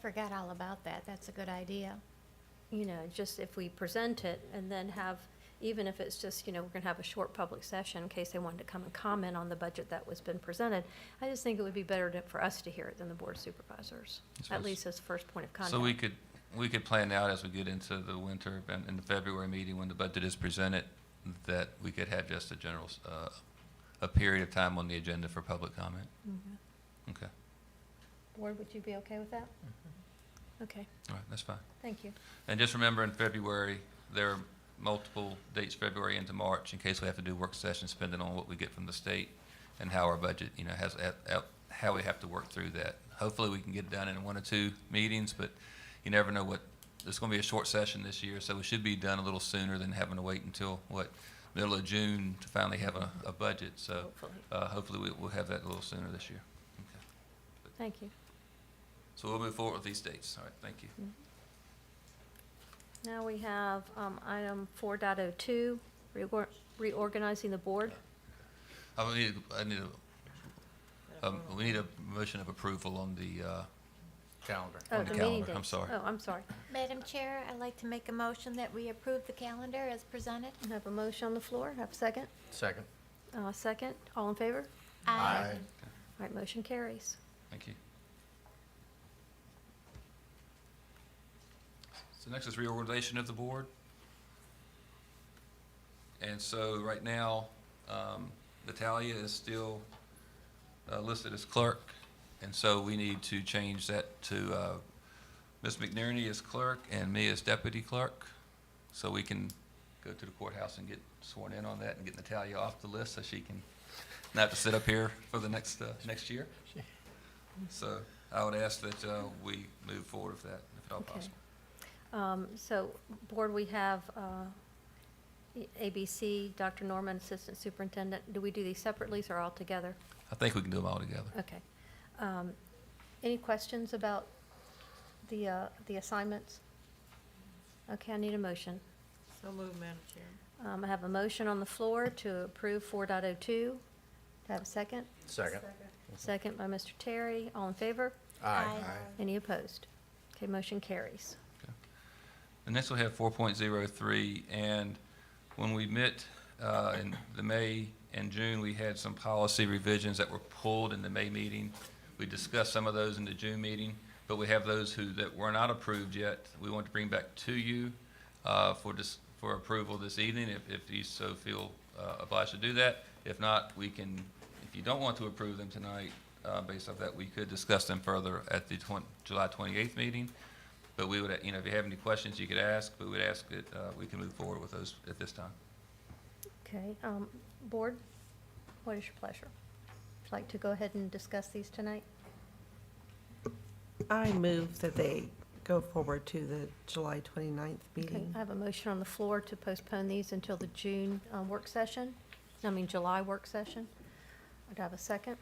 forgot all about that. That's a good idea. you know, just if we present it and then have, even if it's just, you know, we're gonna have a short public session in case they wanted to come and comment on the budget that was been presented, I just think it would be better to, for us to hear it than the board of supervisors, So at it's- least as first point of contact. So we could, we could plan out as we get into the winter and in the February meeting when the budget is presented, that we could have just a general, s- uh, a period of time on the agenda for public comment. Mhm. Okay, Board, would you be okay with that? Mm-hmm. Okay, all right, that's fine. thank you. And just remember in February, there are multiple dates, February into March, in case we have to do work sessions, depending on what we get from the state and how our budget, you know, has, how we have to work through that. Hopefully, we can get it done in one or two meetings, but you never know what, it's gonna be a short session this year, so it should be done a little sooner than having to wait until, what, middle of June to finally have a, a budget, so, Hopefully. uh, hopefully, we, we'll have that a little sooner this year. Okay. Thank you. So we'll move forward with these dates, all right, thank you. Now we have, um, item four dot oh two, reorg- reorganizing the board. I would need, I need a, um, we need a motion of approval on the, uh, calendar. Oh, On the the meeting calendar, I'm dates. sorry. Oh, I'm sorry. Madam Chair, I'd like to make a motion that we approve the calendar as presented. I have a motion on the floor, have a second? Second. Uh, second, all in favor? Aye. All right, motion carries. thank you. So next is reorganization of the board. And so right now, um, Natalia is still, uh, listed as clerk. And so we need to change that to, uh, Ms. McNerney is clerk and me as deputy clerk. So we can go to the courthouse and get sworn in on that and get Natalia off the list so she can not have to sit up here for the next, uh, next year. So I would ask that, uh, we move forward with that, if at all Okay. possible. Um, So, Board, we have uh, E- ABC, Dr. Norman, Assistant Superintendent. Do we do these separately or all together? I think we can do them all together. Okay. Um, Any questions about the, uh, the assignments? Okay, I need a motion. So moved, Madam Chair. Um, I have a motion on the floor to approve 4.02. Do I have a second? Second. Second by Mr. Terry. All in favor? Aye. Any opposed? Okay, motion carries. And next we have four point zero three, and when we met, uh, in the May and June, we had some policy revisions that were pulled in the May meeting. We discussed some of those in the June meeting, but we have those who, that were not approved yet, we want to bring back to you, uh, for dis for approval this evening, if, if you so feel, uh, obliged to do that. If not, we can, if you don't want to approve them tonight, uh, based off that, we could discuss them further at the twen- July twenty-eighth meeting. But we would, you know, if you have any questions, you could ask, but we'd ask that, uh, we can move forward with those at this time. Okay, um, board, what is your pleasure? Would you like to go ahead and discuss these tonight? I move that they go forward to the July 29th Okay, um, meeting. I have a motion on the floor to postpone these until the June, uh, work session, I mean, July work session. Would I have a second?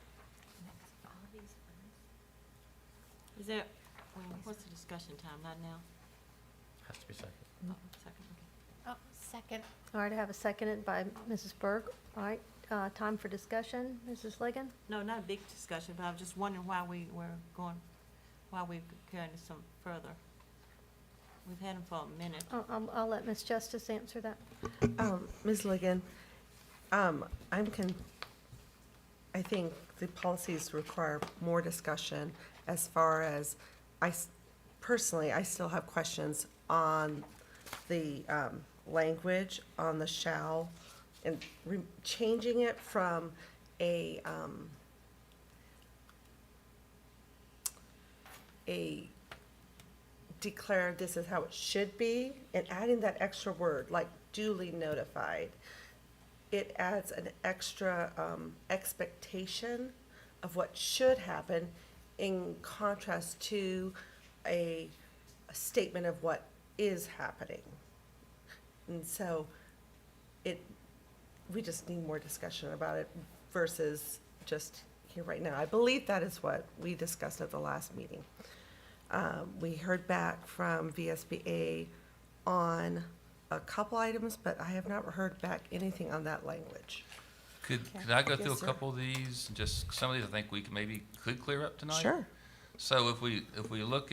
Is that, well, what's the discussion time, not now? Has to be second. Oh, Second, okay. Oh, second. All right, I have a second by Mrs. Berg. All right, uh, time for discussion, Mrs. Ligon? No, not a big discussion, but I was just wondering why we were going, why we were carrying this some further. We've had them for a minute. I'll, I'll- I'll let Ms. Justice answer that. Um, Ms. Ligon, um, I'm con, I think the policies require more discussion as far as, I, s- personally, I still have questions on the um, language, on the shall, and re- changing it from a, um, a declare this is how it should be, and adding that extra word, like duly notified, it adds an extra um, expectation of what should happen in contrast to a, a statement of what is happening. And so it, we just need more discussion about it versus just here right now. I believe that is what we discussed at the last meeting. Um, We heard back from VSBA on a couple items, but I have not heard back anything on that language. Could, Okay. could I go through a Yes, sir. couple of these, just some of these I think we could maybe could clear up tonight? Sure. So if we, if we look